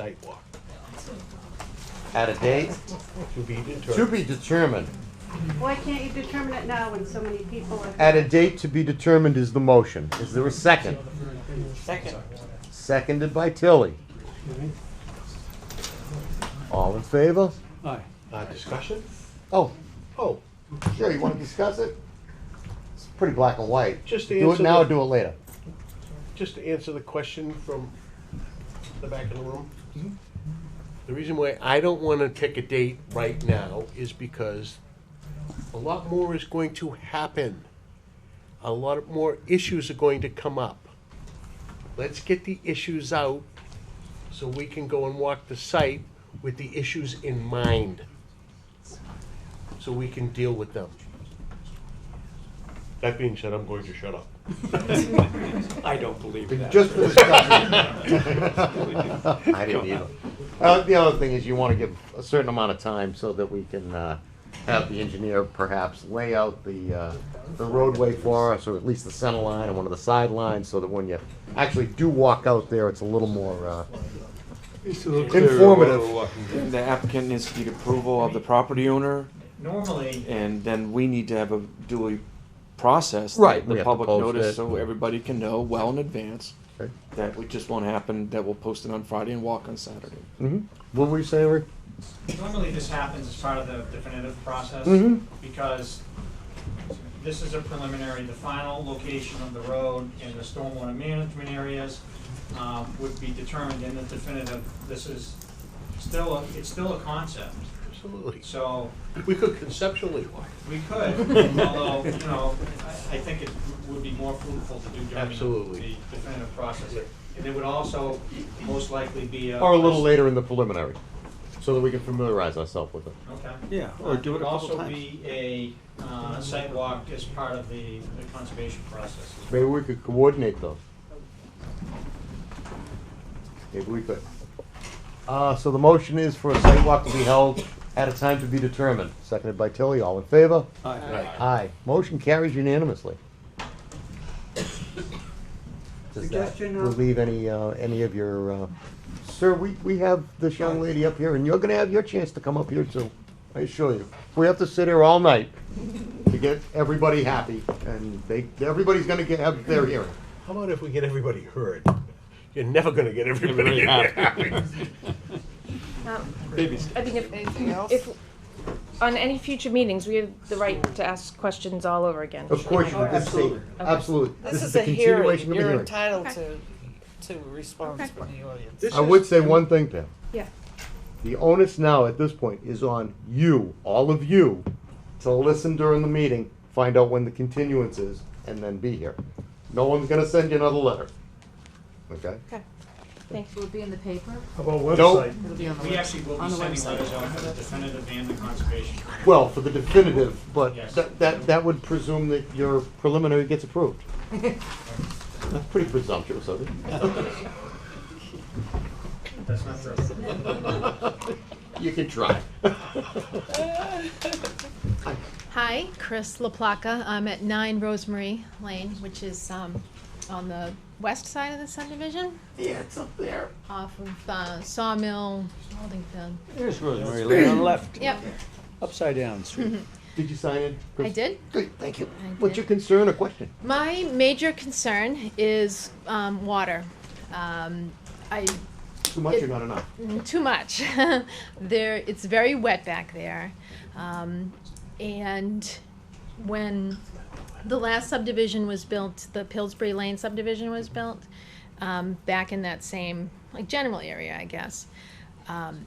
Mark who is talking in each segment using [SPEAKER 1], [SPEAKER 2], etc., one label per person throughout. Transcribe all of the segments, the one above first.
[SPEAKER 1] sidewalk,
[SPEAKER 2] At a date
[SPEAKER 1] to be
[SPEAKER 2] to
[SPEAKER 1] determined.
[SPEAKER 2] be determined.
[SPEAKER 3] Why can't you determine it now when so many people are?
[SPEAKER 2] At a date to be determined is the motion. Is there a second?
[SPEAKER 4] Second.
[SPEAKER 2] Seconded by Tilly. All in favor?
[SPEAKER 5] Aye.
[SPEAKER 1] Uh, discussion?
[SPEAKER 2] Oh,
[SPEAKER 1] Oh,
[SPEAKER 2] sure, you wanna discuss it? It's pretty black and white.
[SPEAKER 1] Just to
[SPEAKER 2] Do it
[SPEAKER 1] answer
[SPEAKER 2] now or
[SPEAKER 1] the-
[SPEAKER 2] do it later?
[SPEAKER 1] just to answer the question from the back of the room. The reason why I don't want to pick a date right now is because a lot more is going to happen. A lot more issues are going to come up. Let's get the issues out so we can go and walk the site with the issues in mind. So we can deal with them. That being said, I'm going to shut up.
[SPEAKER 5] I don't believe that.
[SPEAKER 2] Just for discussion. I didn't either. Uh, the other thing is you wanna give a certain amount of time so that we can, uh, have the engineer perhaps lay out the, uh, the roadway for us, or at least the center line and one of the sidelines, so that when you actually do walk out there, it's a little more, uh, informative.
[SPEAKER 4] The applicant needs to get approval of the property owner,
[SPEAKER 6] Normally,
[SPEAKER 4] and then we need to have a duly processed.
[SPEAKER 2] Right, we
[SPEAKER 4] The
[SPEAKER 2] have to
[SPEAKER 4] public
[SPEAKER 2] post
[SPEAKER 4] notice,
[SPEAKER 2] it.
[SPEAKER 4] so everybody can know well in advance
[SPEAKER 2] Okay.
[SPEAKER 4] that it just won't happen, that we'll post it on Friday and walk on Saturday.
[SPEAKER 2] Mm-hmm. What were you saying, Rick?
[SPEAKER 6] normally this happens as part of the definitive process
[SPEAKER 2] Mhm.
[SPEAKER 6] because this is a preliminary, the final location of the road and the stormwater management areas um, would be determined in the definitive. This is still, a- it's still a concept.
[SPEAKER 1] Absolutely.
[SPEAKER 6] So
[SPEAKER 1] We could conceptually walk.
[SPEAKER 6] we could, although, you know, I I think it would be more fruitful to do during
[SPEAKER 1] Absolutely.
[SPEAKER 6] the definitive process. And it would also most likely be a.
[SPEAKER 2] Or a little later in the preliminary, so that we can familiarize ourselves with it.
[SPEAKER 6] Okay. Uh,
[SPEAKER 5] Yeah, or do it a couple
[SPEAKER 6] also
[SPEAKER 5] times.
[SPEAKER 6] be a uh, site walk as part of the the conservation process.
[SPEAKER 2] Maybe we could coordinate those. Maybe we could. Uh, so the motion is for a sidewalk to be held at a time to be determined, seconded by Tilly, all in favor?
[SPEAKER 5] Aye.
[SPEAKER 2] Aye. Motion carries unanimously. Does that
[SPEAKER 3] Suggestion of-
[SPEAKER 2] relieve any, uh, any of your, uh, sir, we, we have this young lady up here, and you're gonna have your chance to come up here too, I assure you. We have to sit here all night to get everybody happy, and they, everybody's gonna get, have their hearing.
[SPEAKER 1] How about if we get everybody heard? You're never gonna get everybody happy.
[SPEAKER 7] Um, I think if, if, on any future meetings, we have the right to ask questions all over again.
[SPEAKER 2] Of course, you this is, absolutely.
[SPEAKER 8] Oh, This is
[SPEAKER 2] the
[SPEAKER 8] a hearing,
[SPEAKER 2] continuation of a
[SPEAKER 8] you're
[SPEAKER 2] hearing.
[SPEAKER 8] entitled to, to response from the audience.
[SPEAKER 1] This
[SPEAKER 2] I
[SPEAKER 1] is-
[SPEAKER 2] would say one thing, Pam.
[SPEAKER 3] Yeah.
[SPEAKER 2] The onus now at this point is on you, all of you, to listen during the meeting, find out when the continuance is, and then be here. No one's gonna send you another letter. Okay?
[SPEAKER 7] Thanks.
[SPEAKER 9] Will it be in the paper?
[SPEAKER 2] Nope.
[SPEAKER 9] It'll be on the
[SPEAKER 6] We
[SPEAKER 9] web-
[SPEAKER 6] actually will
[SPEAKER 9] on
[SPEAKER 6] be
[SPEAKER 9] the
[SPEAKER 6] sending
[SPEAKER 9] website.
[SPEAKER 6] letters out for the definitive and the conservation.
[SPEAKER 2] Well, for the definitive, but
[SPEAKER 6] Yes.
[SPEAKER 2] that, that, that would presume that your preliminary gets approved. That's pretty presumptuous of it.
[SPEAKER 6] That's not true.
[SPEAKER 2] You can try.
[SPEAKER 10] Hi, Chris LaPlaca. I'm at 9 Rosemary Lane, which is um, on the west side of the subdivision,
[SPEAKER 2] Yeah, it's up there.
[SPEAKER 10] off of uh, Sawmill, Holdingfield.
[SPEAKER 5] Here's Rosemary Lane on the left,
[SPEAKER 10] Yep,
[SPEAKER 5] upside down street.
[SPEAKER 2] Did you sign it?
[SPEAKER 10] I
[SPEAKER 2] Chris?
[SPEAKER 10] did.
[SPEAKER 2] Good, thank you.
[SPEAKER 10] I
[SPEAKER 2] What's
[SPEAKER 10] did.
[SPEAKER 2] your concern or question?
[SPEAKER 10] My major concern is um, water. Um, I
[SPEAKER 2] Too much or not enough?
[SPEAKER 10] Mm, too much. there, it's very wet back there, um, and when the last subdivision was built, the Pillsbury Lane subdivision was built, um, back in that same like general area, I guess. Um,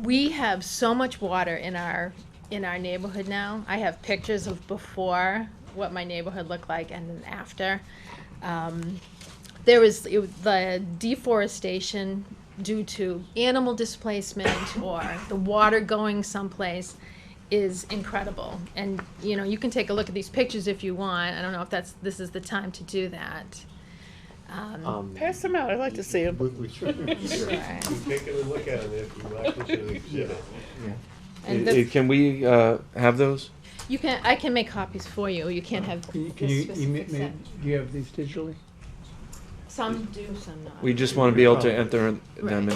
[SPEAKER 10] we have so much water in our in our neighborhood now. I have pictures of before what my neighborhood looked like and then after. Um, there was it, was the deforestation due to animal displacement or the water going someplace is incredible. And you know, you can take a look at these pictures if you want. I don't know if that's this is the time to do that. Um,
[SPEAKER 2] Um,
[SPEAKER 8] Pass them out, I'd like to see them.
[SPEAKER 2] we- we should-
[SPEAKER 1] Take a look at it if you like, it's an exhibit.
[SPEAKER 10] and
[SPEAKER 4] I- I-
[SPEAKER 10] the,
[SPEAKER 4] Can we, uh, have those?
[SPEAKER 10] you can I can make copies for you. You can't have
[SPEAKER 5] Can you,
[SPEAKER 10] this
[SPEAKER 5] can you,
[SPEAKER 10] specific
[SPEAKER 5] email me-
[SPEAKER 10] set.
[SPEAKER 5] do you have these digitally?
[SPEAKER 4] Some do, some not.
[SPEAKER 10] We just want to be able to enter them
[SPEAKER 4] Right.
[SPEAKER 10] in